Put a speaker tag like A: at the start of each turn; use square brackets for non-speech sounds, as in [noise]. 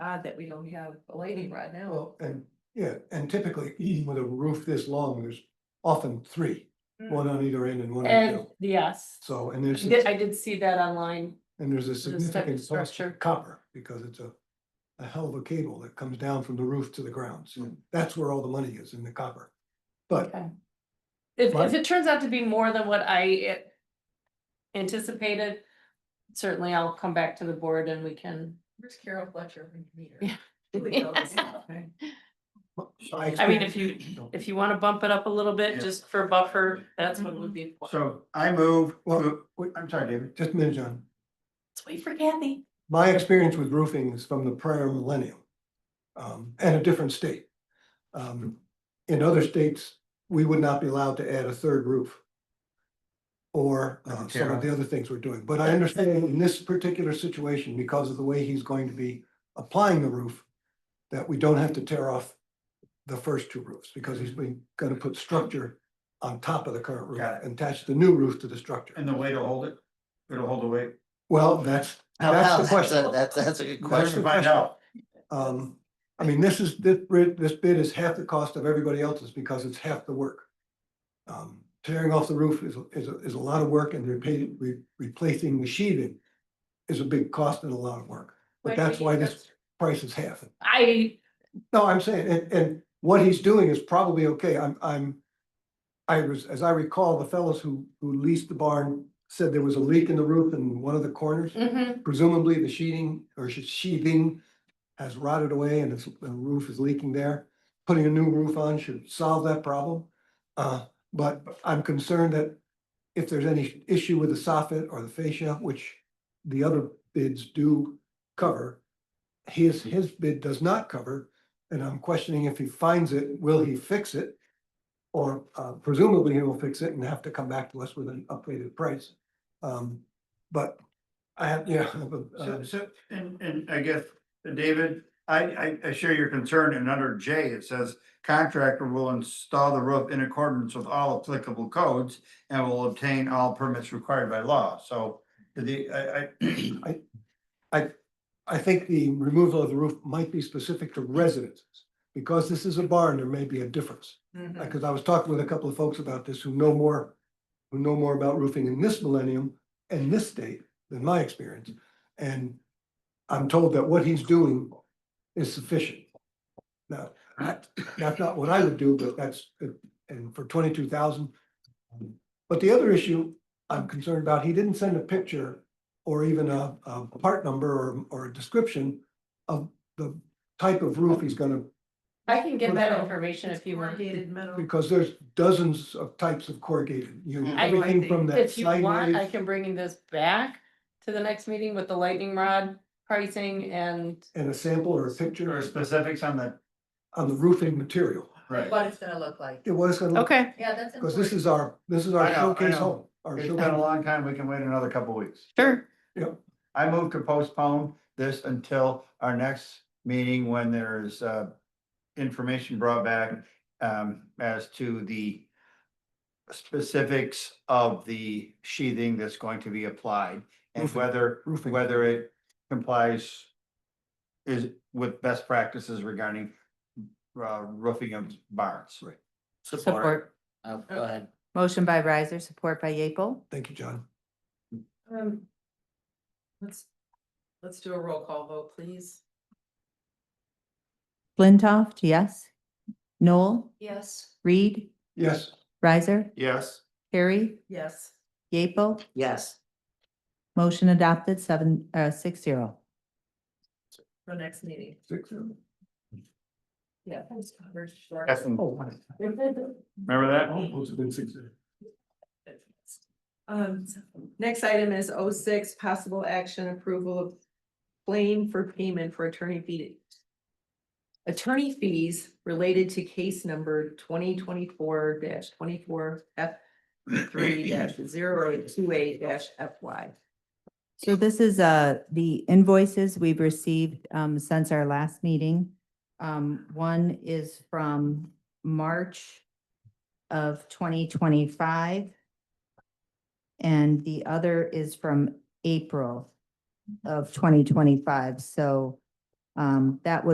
A: odd that we don't have a lady right now.
B: Well, and, yeah, and typically, even with a roof this long, there's often three, one on either end and one on the
C: Hmm. And,
B: other.
C: yes,
B: So, and there's,
C: I did- I did see that online.
B: and there's a
C: type of
B: significant cost
C: structure.
B: of copper, because it's a. A hell of a cable that comes down from the roof to the ground, so that's where all the money is, in the copper. But,
C: Okay. If, if
B: Right.
C: it turns out to be more than what I eh, anticipated, certainly I'll come back to the board and we can.
A: Where's Carol Fletcher? when you meet her?
C: Yeah.
A: Really know this stuff, right?
C: I mean, if you, if you wanna bump it up a little bit,
D: Yeah.
C: just for buffer, that's what it would be. for.
D: So I move,
B: Well, wait,
D: I'm sorry, David.
B: just a minute, John.
C: Let's wait for Kathy.
B: My experience with roofing is from the prior millennium. um, and a different state. Um, in other states, we would not be allowed to add a third roof. Or uh, some of the other things we're doing, but I understand in this particular situation, because of the way he's going to be applying the roof. That we don't have to tear off the first two roofs, because he's
E: Mm-hmm.
B: been gonna put structure on top of the current roof.
D: Got
B: and Attach the new roof to the structure.
D: And the way to hold it, it'll hold the weight.
B: Well, that's,
E: How-
B: That's
E: how-
B: the
E: a-
B: question.
E: That's, that's a good
B: the
D: Let's
E: question.
B: question.
D: find out.
B: Um, I mean, this is, this bid, this bid is half the cost of everybody else's because it's half the work. Um, tearing off the roof is, is, a- is a lot of work and repa- re- replacing the sheathing is a big cost and a lot of work. But
C: When do
B: that's
C: you
B: why
C: think
B: this price is half.
C: I,
B: No, I'm saying, and, and what he's doing is probably okay. I'm, I'm. I was, as I recall, the fellows who, who leased the barn said there was a leak in the roof in one of the corners
C: mhm,
B: presumably the sheeting or sh- sheathing has rotted away and it's- the roof is leaking there. Putting a new roof on should solve that problem. Uh, but I'm concerned that if there's any issue with the soffit or the fascia, which the other bids do cover, his, his bid does not cover, and I'm questioning if he finds it, will he fix it? Or uh, presumably he will fix it and have to come back to us with an updated price. Um, but I have, yeah. I have a,
D: So,
B: uh,
D: so, and, and I guess, David, I, I, I share your concern and under J, it says contractor will install the roof in accordance with all applicable codes and will obtain all permits required by law. So the, I, I, [clears throat]
B: I think the removal of the roof might be specific to residences. Because this is a barn, there may be a difference.
A: Mhm.
B: Because I was talking with a couple of folks about this who know more, who know more about roofing in this millennium and this state than my experience. And I'm told that what he's doing is sufficient. Now, that- that's not what I would do, but that's, and for twenty-two thousand. But the other issue I'm concerned about, he didn't send a picture or even a, a part number or, or a description of the type of roof he's gonna
C: I can get that information
A: It's
C: if you want.
A: corrugated metal.
B: Because there's dozens of types of corrugated, you,
D: Mm.
A: I
B: everything
A: like
B: from that
C: If you want, I
B: sideways,
C: can bring this back to the next meeting with the lightning rod pricing and,
B: and a sample or a
D: there are
B: picture
D: specifics on the,
B: on the roofing material.
D: right.
A: What it's gonna look like.
B: It was gonna,
C: okay.
A: Yeah, that's.
B: because this
A: important.
B: is our, this is our
D: I know, I
B: showcase
D: know.
B: home, our
D: It's been a
B: showcase.
D: long time, we can wait another couple weeks.
C: Sure.
D: I move to postpone this until our next meeting when there is uh information brought back um as to the specifics of the sheathing that's going to be applied and
B: Roofing.
D: whether,
B: Roofing.
D: whether it complies is with best practices regarding uh roofing of barns.
B: Right.
E: Support. Oh, go ahead.
F: Motion by riser, support by Yeaple.
B: Thank you, John.
A: Um, Let's, let's do a roll call vote, please.
F: Flintoff, yes. Noel,
A: Yes.
F: Reed,
B: Yes,
F: riser,
D: Yes,
F: Harry,
A: Yes.
F: Yeaple.
E: Yes,
F: Motion adopted seven, uh, six zero.
A: For next meeting.
B: six, seven.
A: Yeah. thanks, Congress. Sure.
D: Yes. remember that?
B: Oh, it's been six, seven.
A: Um, next item is 06 possible action approval of claim for payment for attorney fee. Attorney fees related to case number twenty twenty-four twenty-four F three 28 FY.
F: So this is, uh, the invoices we've received, um, since our last meeting. Um, one is from March of twenty twenty-five. And the other is from April of twenty twenty-five, so Um, that was